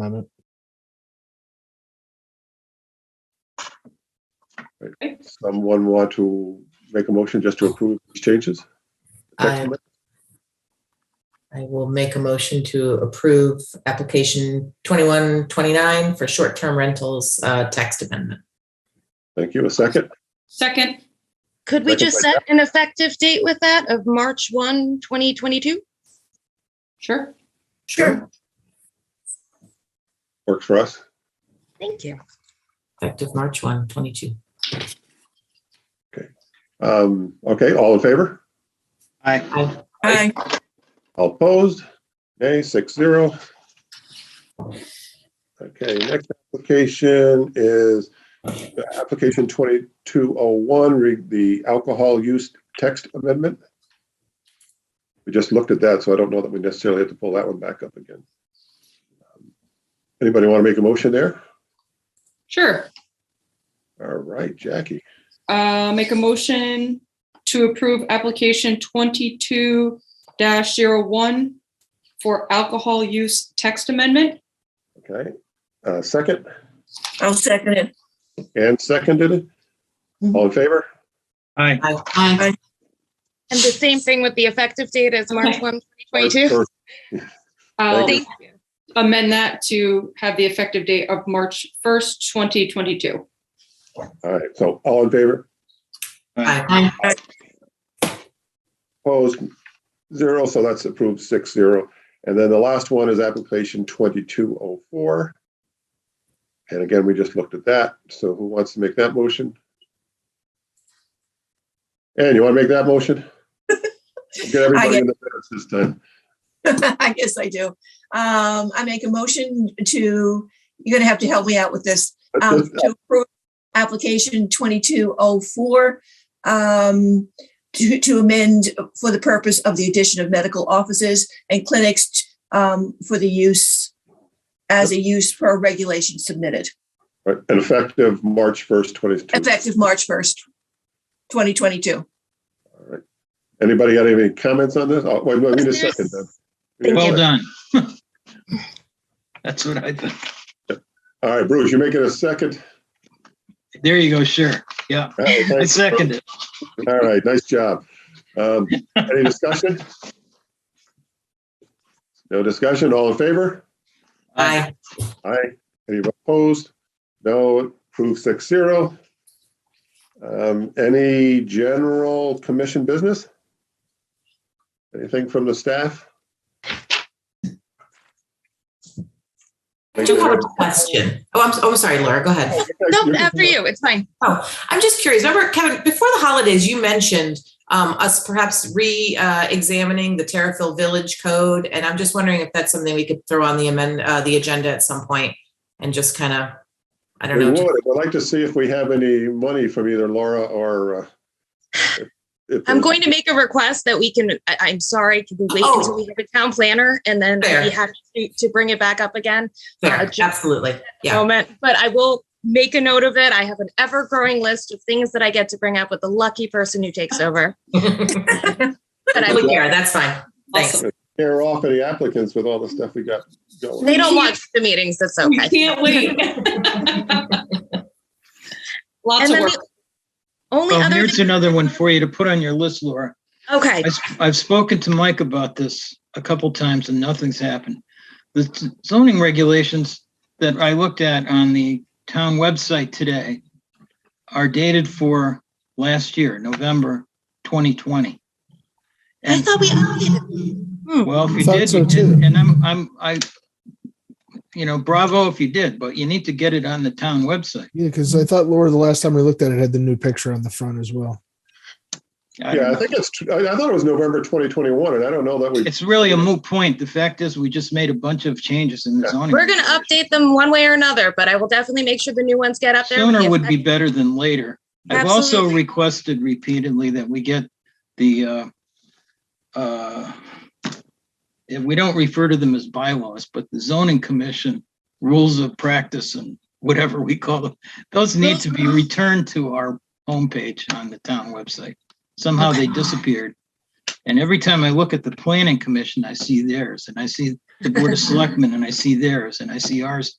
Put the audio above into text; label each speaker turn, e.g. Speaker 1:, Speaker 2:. Speaker 1: amendment.
Speaker 2: Someone want to make a motion just to approve these changes?
Speaker 3: I, I will make a motion to approve application 2129 for short-term rentals uh, text amendment.
Speaker 2: Thank you. A second?
Speaker 4: Second,
Speaker 5: Could we
Speaker 2: Second
Speaker 5: just
Speaker 2: by
Speaker 5: set an effective date with that of March 1, 2022?
Speaker 4: sure.
Speaker 3: Sure.
Speaker 2: Works for us.
Speaker 5: Thank you.
Speaker 3: Effective March 1, 22.
Speaker 2: Um, okay, all in favor?
Speaker 3: Aye.
Speaker 6: Aye.
Speaker 2: All opposed? Nay, six zero. Okay, next application is uh, application twenty-two oh one, re, the alcohol use text amendment. We just looked at that, so I don't know that we necessarily have to pull that one back up again. Um, Anybody want to make a motion there?
Speaker 4: Sure.
Speaker 2: All right, Jackie,
Speaker 4: Uh, make a motion to approve application twenty-two dash zero one for alcohol use text amendment.
Speaker 2: okay, uh, second?
Speaker 6: I'll second it.
Speaker 2: And seconded. All in favor?
Speaker 7: Aye.
Speaker 3: Aye. Aye.
Speaker 5: And the same thing with the effective date as March
Speaker 4: Okay.
Speaker 5: 1, 2022? Oh.
Speaker 4: I'll
Speaker 2: Thank
Speaker 4: amend that to have the effective date of March first, twenty twenty-two.
Speaker 2: All right, so all in favor,
Speaker 3: Aye.
Speaker 2: opposed, zero, so that's approved six zero. And then the last one is application twenty-two oh four. And again, we just looked at that, so who wants to make that motion? Ann, you want to make that motion? Get everybody in the minutes this time.
Speaker 6: I guess I do. Um, I make a motion to, you're gonna have to help me out with this. Um, to approve application twenty-two oh four, um, to, to amend for the purpose of the addition of medical offices and clinics, um, for the use as a use per regulation submitted,
Speaker 2: Right, And effective March first, twenty-two.
Speaker 6: effective March first, twenty twenty-two.
Speaker 2: Anybody got any comments on this? Oh, wait, wait, wait a second then. We need a
Speaker 7: Well
Speaker 2: second.
Speaker 7: done. That's what I think.
Speaker 2: All right, Bruce, you're making a second.
Speaker 7: There you go, sure. Yeah,
Speaker 2: All right,
Speaker 7: I
Speaker 2: thanks.
Speaker 7: second it.
Speaker 2: All right, nice job. Um, Any discussion? No discussion, all in favor?
Speaker 3: Aye.
Speaker 2: Aye. Any opposed? No, approved six zero. Um, Any general commission business? Anything from the staff?
Speaker 3: I do have a question. Oh, I'm, oh, sorry, Laura, go ahead.
Speaker 5: Nope, after you, it's fine.
Speaker 3: I'm just curious. Remember, Kevin, before the holidays, you mentioned um, us perhaps re-examining the Terriffill Village Code, and I'm just wondering if that's something we could throw on the amend uh, the agenda at some point and just kind of, I don't
Speaker 2: We
Speaker 3: know.
Speaker 2: would,
Speaker 3: just-
Speaker 2: I'd like to see if we have any money from either Laura or. uh, if- if
Speaker 5: I'm
Speaker 2: there's-
Speaker 5: going to make a request that we can, I, I'm sorry, can we wait
Speaker 3: Oh.
Speaker 5: until we have a town planner and then
Speaker 3: Fair.
Speaker 5: we have to, to bring it back up again?
Speaker 3: Fair,
Speaker 5: uh, just-
Speaker 3: absolutely. Yeah.
Speaker 5: Moment, but I will make a note of it. I have an ever-growing list of things that I get to bring up with the lucky person who takes over. But I,
Speaker 3: Well, yeah, that's fine. Thanks.
Speaker 4: Awesome.
Speaker 2: Tear off any applicants with all the stuff we got going.
Speaker 5: they don't watch the meetings, that's
Speaker 4: We
Speaker 5: okay.
Speaker 4: can't wait. Lots
Speaker 5: And
Speaker 4: of
Speaker 5: then
Speaker 4: work.
Speaker 5: the only
Speaker 7: Well,
Speaker 5: other,
Speaker 7: here's
Speaker 5: thing-
Speaker 7: another one for you to put on your list, Laura.
Speaker 5: okay,
Speaker 7: I s- I've spoken to Mike about this a couple times and nothing's happened. The z- zoning regulations that I looked at on the town website today are dated for last year, November 2020.
Speaker 5: I
Speaker 7: And-
Speaker 5: thought we updated. Hmm.
Speaker 7: Well, if you
Speaker 1: Thought
Speaker 7: did,
Speaker 1: so
Speaker 7: you
Speaker 1: too.
Speaker 7: did, and I'm, I'm, I, you know, bravo if you did, but you need to get it on the town website.
Speaker 1: Yeah, because I thought Laura, the last time we looked at it, had the new picture on the front as well.
Speaker 7: I
Speaker 2: Yeah,
Speaker 7: don't
Speaker 2: I
Speaker 7: know.
Speaker 2: think it's, tr- I I thought it was November 2021, and I don't know that we,
Speaker 7: It's really a moot point. The fact is, we just made a bunch of changes in the
Speaker 2: Yeah.
Speaker 7: zoning.
Speaker 5: We're going to update them one way or another, but I will definitely make sure the new ones get up there. with
Speaker 7: Sooner
Speaker 5: the
Speaker 7: would be better than later. I've also
Speaker 5: Absolutely.
Speaker 7: requested repeatedly that we get the, uh, uh, if we don't refer to them as bylaws, but the zoning commission rules of practice and whatever we call them, those need to be returned to our homepage on the town website. Somehow they disappeared. And every time I look at the planning commission, I see theirs and I see the Board of Selectmen and I see theirs and I see ours.